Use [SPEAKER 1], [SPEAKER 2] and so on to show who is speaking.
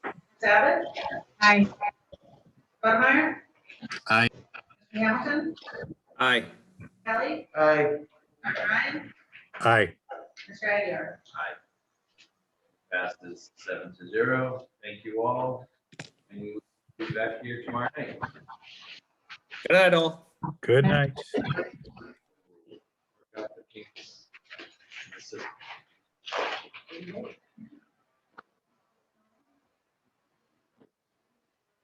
[SPEAKER 1] Savage? Aye. Budmeier?
[SPEAKER 2] Aye.
[SPEAKER 1] Hamilton?
[SPEAKER 3] Aye.
[SPEAKER 1] Kelly?
[SPEAKER 4] Aye.
[SPEAKER 1] Dr. Ryan?
[SPEAKER 2] Aye.
[SPEAKER 1] Mr. Aguirre?
[SPEAKER 5] passes seven to zero. Thank you all. And we will be back here tomorrow night.
[SPEAKER 3] Good night, all.
[SPEAKER 2] Good night.
[SPEAKER 5] Got the kinks. This is-